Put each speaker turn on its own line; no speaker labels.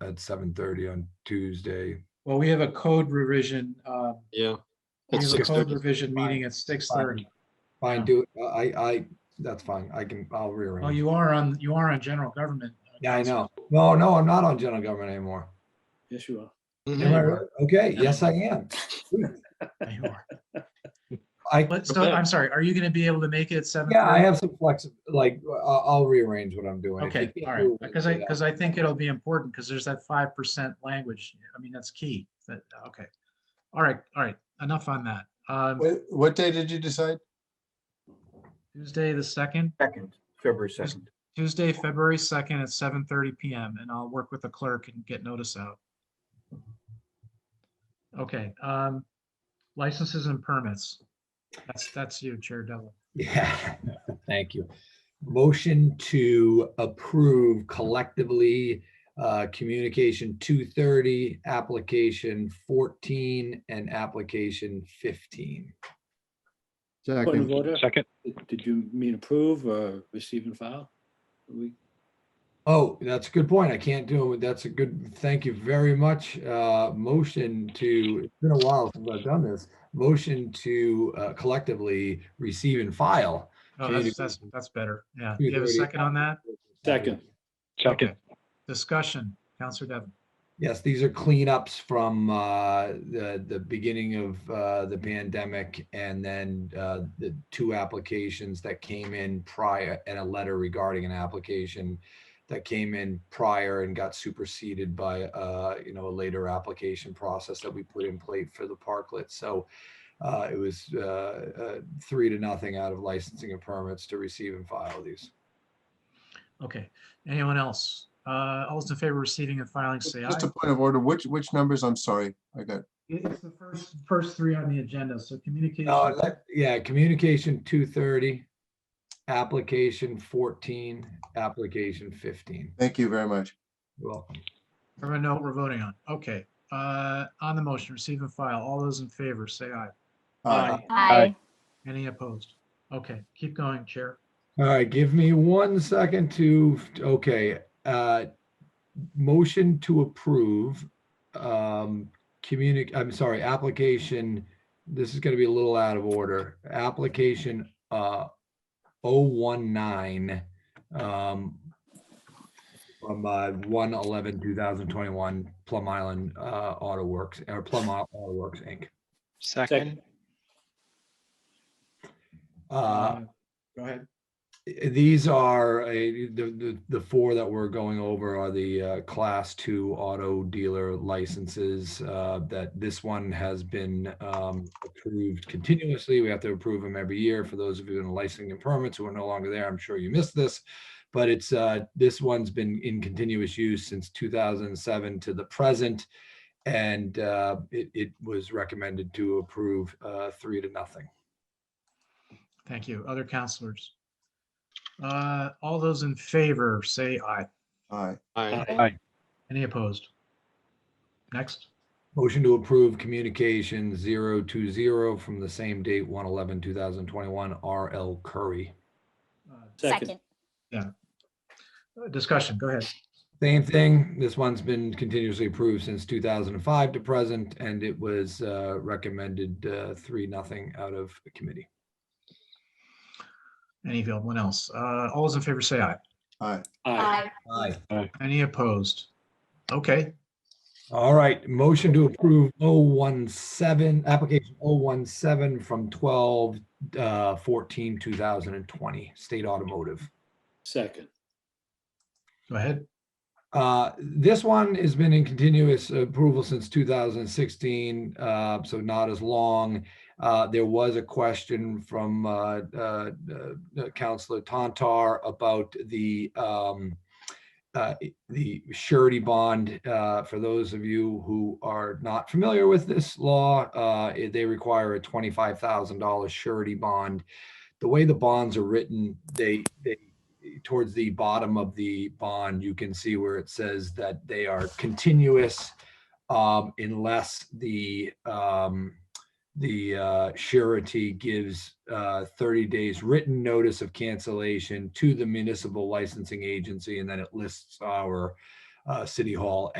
at seven thirty on Tuesday.
Well, we have a code revision, uh,
Yeah.
we
It's
have a
six
code
thirty.
revision meeting at six thirty.
Fine, do, it. I, I, that's fine. I can, I'll
Well,
rearrange.
Oh, you are on, you are on general government.
Yeah, I know. No, no, I'm not on general government anymore.
Yes, you are.
Am I
Mhm.
right? Okay, yes, I am.
Yeah, you are.
I,
But so, I'm sorry, are you gonna be able to make it at seven?
yeah, I have some flexi, like, I'll, I'll rearrange what I'm doing. If I
Okay,
can't
all
do
right,
it,
because I,
yeah.
because I think it'll be important, because there's that five percent language. I mean, that's key. That, okay. All right, all right, enough on that. Um,
Wait, What day did you decide?
Tuesday, the second,
Second, February second.
Tuesday, February second at seven thirty PM, and I'll work with the clerk and get notice out. Okay, um, licenses and permits. That's, that's you, Chair Devlin.
Yeah, thank you. Motion to approve collectively uh communication two thirty, application fourteen, and application fifteen.
Point of order.
Second.
Did- Did you mean approve or receive and file? We,
Oh, that's a good point. I can't do it. That's a good, thank you very much. Uh Motion to, it's been a while since I've done this. Motion to uh collectively receive and file.
Oh, that's, that's, that's better. Yeah. Do you have a
2:30.
second on that?
Second.
Second.
Okay. Discussion, Counselor Devlin.
Yes, these are cleanups from uh, the, the beginning of uh, the pandemic and then uh, the two applications that came in prior and a letter regarding an application that came in prior and got superseded by, uh, you know, a later application process that we put in place for the parklet. So uh, it was uh, uh, three to nothing out of licensing and permits to receive and file these.
Okay, anyone else? Uh, all those in favor of receiving and filing, say aye.
Just a point of order, which, which numbers? I'm sorry, I got.
It- It's the first, first three on the agenda, so communication.
No, that, yeah, communication two thirty, application fourteen, application fifteen.
Thank you very much.
You're welcome.
Everyone know what we're voting on. Okay, uh, on the motion, receive and file. All those in favor, say aye.
Uh,
Aye.
Any opposed? Okay, keep going, Chair.
All right, give me one second to, okay, uh, motion to approve, um, communic, I'm sorry, application, this is gonna be a little out of order, application, uh, oh one nine, um, from, uh, one eleven, two thousand twenty-one, Plum Island, uh, Auto Works, or Plum Au- Auto Works, Inc.
Second.
Uh,
Go ahead.
These are, uh, the, the, the four that we're going over are the uh, class two auto dealer licenses. uh, That this one has been um, approved continuously. We have to approve them every year. For those of you in licensing and permits who are no longer there, I'm sure you missed this. But it's, uh, this one's been in continuous use since 2007 to the present. And uh, it, it was recommended to approve uh, three to nothing.
Thank you. Other counselors? Uh, all those in favor, say aye.
Aye.
Aye.
Any opposed? Next,
Motion to approve communication zero two zero from the same date, one eleven, two thousand twenty-one, R L Curry.
Uh,
Second.
discussion, go ahead.
Same thing. This one's been continuously approved since two thousand and five to present, and it was uh, recommended uh, three, nothing out of the committee.
Any, one else? Uh, all those in favor, say aye.
Aye.
Aye.
Aye.
Any opposed? Okay,
All right, motion to approve 017 application 017 from twelve uh, fourteen, two thousand and twenty, State Automotive.
Second.
go ahead.
Uh, This one has been in continuous approval since 2016, uh, so not as long. Uh, There was a question from uh, uh, uh, Counselor Tantar about the um, uh, the surety bond. Uh, For those of you who are not familiar with this law, uh, it- they require a $25,000 surety bond. The way the bonds are written, they, they towards the bottom of the bond, you can see where it says that they are continuous um, unless the um, the uh, surety gives uh, 30 days written notice of cancellation to the municipal licensing agency, and then it lists our uh, city hall